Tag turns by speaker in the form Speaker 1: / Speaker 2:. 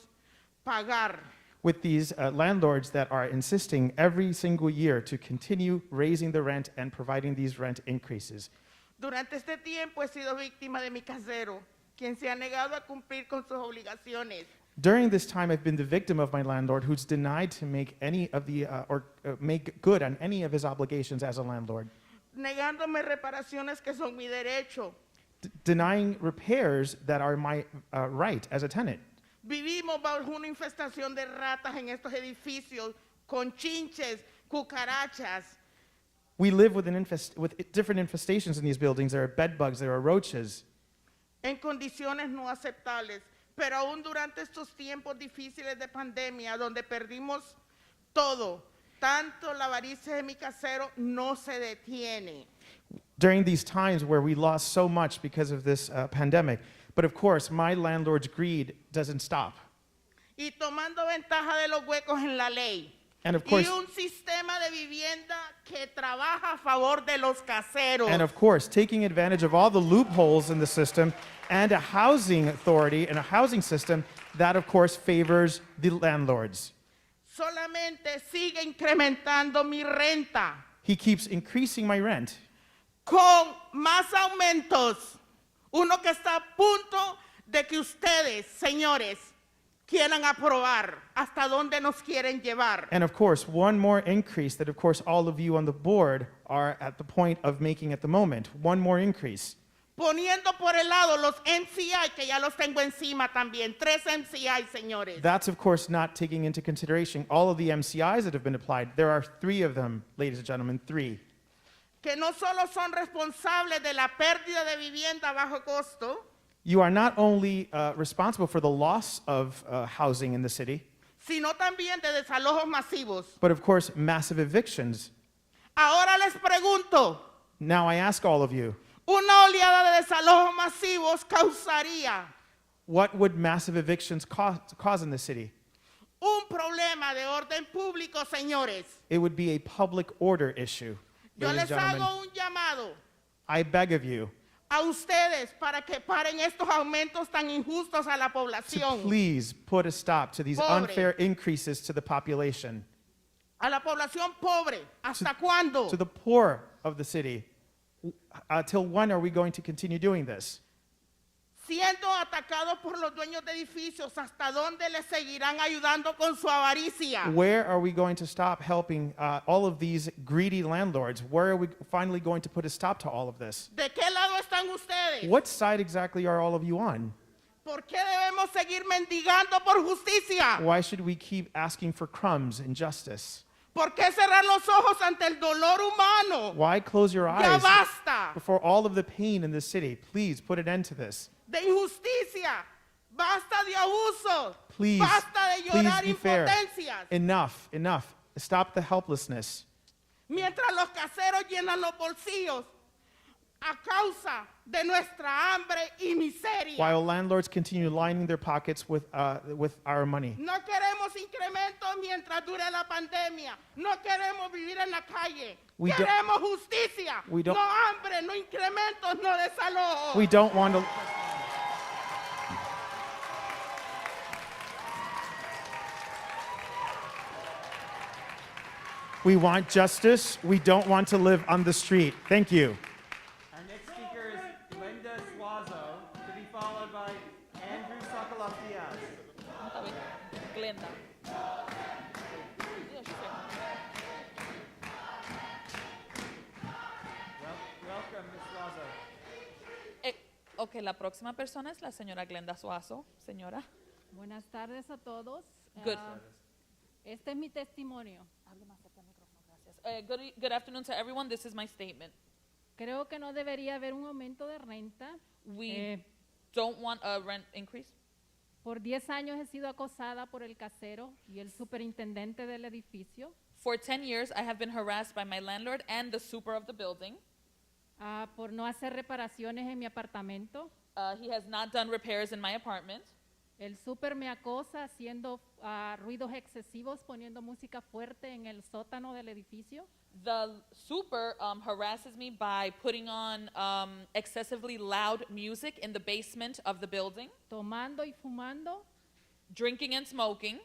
Speaker 1: pagar
Speaker 2: with these uh, landlords that are insisting every single year to continue raising the rent and providing these rent increases.
Speaker 1: Durante este tiempo he sido víctima de mi casero, quien se ha negado a cumplir con sus obligaciones.
Speaker 2: During this time, I've been the victim of my landlord who's denied to make any of the uh, or uh, make good on any of his obligations as a landlord,
Speaker 1: negándome reparaciones que son mi derecho.
Speaker 2: d- denying repairs that are my uh, right as a tenant.
Speaker 1: Vivimos bajo una infestación de ratas en estos edificios, con chinches, cucarachas.
Speaker 2: We live with, an infest- with different infestations in these buildings. There are bed bugs, there are roaches.
Speaker 1: en condiciones no aceptables, pero aún durante estos tiempos difíciles de pandemia, donde perdimos todo, tanto la avaricia de mi casero no se detiene.
Speaker 2: During these times where we lost so much because of this uh, pandemic. But of course, my landlord's greed doesn't stop.
Speaker 1: Y tomando ventaja de los huecos en la ley.
Speaker 2: And of
Speaker 1: Y
Speaker 2: course-
Speaker 1: un sistema de vivienda que trabaja a favor de los caseros.
Speaker 2: And of course, taking advantage of all the loopholes in the system and a housing authority and a housing system that, of course, favors the landlords.
Speaker 1: Solamente sigue incrementando mi renta
Speaker 2: He keeps increasing my rent
Speaker 1: con más aumentos. Uno que está a punto de que ustedes, señores, quieran aprobar hasta dónde nos quieren llevar.
Speaker 2: and, of course, one more increase that, of course, all of you on the board are at the point of making at the moment. One more increase.
Speaker 1: Poniendo por el lado los MCI, que ya los tengo encima también. Tres MCI, señores.
Speaker 2: That's, of course, not taking into consideration all of the MCIs that have been applied. There are three of them, ladies and gentlemen, three.
Speaker 1: que no solo son responsables de la pérdida de vivienda a bajo costo,
Speaker 2: You are not only uh, responsible for the loss of uh, housing in the city,
Speaker 1: sino también de desalojos masivos.
Speaker 2: but of course, massive evictions.
Speaker 1: Ahora les pregunto,
Speaker 2: Now I ask all of you,
Speaker 1: ¿una oleada de desalojos masivos causaría
Speaker 2: what would massive evictions cause, cause in the city?
Speaker 1: un problema de orden público, señores?
Speaker 2: It would be a public order issue.
Speaker 1: Yo
Speaker 2: ladies and
Speaker 1: les
Speaker 2: gentlemen.
Speaker 1: hago un llamado
Speaker 2: I beg of you
Speaker 1: a ustedes para que paren estos aumentos tan injustos a la
Speaker 2: to
Speaker 1: población,
Speaker 2: please put a stop to these
Speaker 1: Pobre.
Speaker 2: unfair increases to the population,
Speaker 1: a la población pobre. ¿Hasta cuándo?
Speaker 2: to the poor of the city. Until when are we going to continue doing this?
Speaker 1: Siendo atacados por los dueños de edificios, ¿hasta dónde les seguirán ayudando con su avaricia?
Speaker 2: Where are we going to stop helping uh, all of these greedy landlords? Where are we finally going to put a stop to all of this?
Speaker 1: ¿De qué lado están ustedes?
Speaker 2: What side exactly are all of you on?
Speaker 1: ¿Por qué debemos seguir mendigando por justicia?
Speaker 2: Why should we keep asking for crumbs and justice?
Speaker 1: ¿Por qué cerrar los ojos ante el dolor humano?
Speaker 2: Why close your
Speaker 1: Ya
Speaker 2: eyes
Speaker 1: basta
Speaker 2: before all of the pain in this city? Please put an end to this.
Speaker 1: de injusticia, basta de abuso,
Speaker 2: Please,
Speaker 1: basta de
Speaker 2: please
Speaker 1: llorar
Speaker 2: be fair.
Speaker 1: impotencias.
Speaker 2: Enough, enough. Stop the helplessness.
Speaker 1: Mientras los caseros llenan los bolsillos a causa de nuestra hambre y miseria.
Speaker 2: While landlords continue lining their pockets with, uh, with our money.
Speaker 1: No queremos incrementos mientras dure la pandemia. No queremos vivir en la calle.
Speaker 2: We don't-
Speaker 1: queremos justicia.
Speaker 2: We
Speaker 1: No
Speaker 2: don't-
Speaker 1: hambre, no incrementos, no desalojos.
Speaker 2: We don't want to. We want justice. We don't want to live on the street. Thank you.
Speaker 3: Our next speaker is Linda Suazo, to be followed by Andrew Sokolov Diaz.
Speaker 4: Tá bem. Glenda. Deus, Senhor.
Speaker 3: Wel- welcome, Ms. Suazo.
Speaker 4: Eh, ok, la próxima persona es la señora Glenda Suazo. Señora.
Speaker 5: Buenas tardes a todos.
Speaker 4: Good.
Speaker 5: Ah, este es mi testimonio.
Speaker 4: Eh, good, e- good afternoon to everyone. This is my statement.
Speaker 5: Creo que no debería haber un aumento de renta.
Speaker 4: We
Speaker 5: Eh,
Speaker 4: don't want a rent increase.
Speaker 5: por 10 años he sido acosada por el casero y el superintendente del edificio.
Speaker 4: For 10 years, I have been harassed by my landlord and the super of the building.
Speaker 5: ah, por no hacer reparaciones en mi apartamento.
Speaker 4: Uh, he has not done repairs in my apartment.
Speaker 5: El super me acosa haciendo ah, ruidos excesivos, poniendo música fuerte en el sótano del edificio.
Speaker 4: The super um, harasses me by putting on um, excessively loud music in the basement of the building,
Speaker 5: tomando y fumando
Speaker 4: drinking and smoking,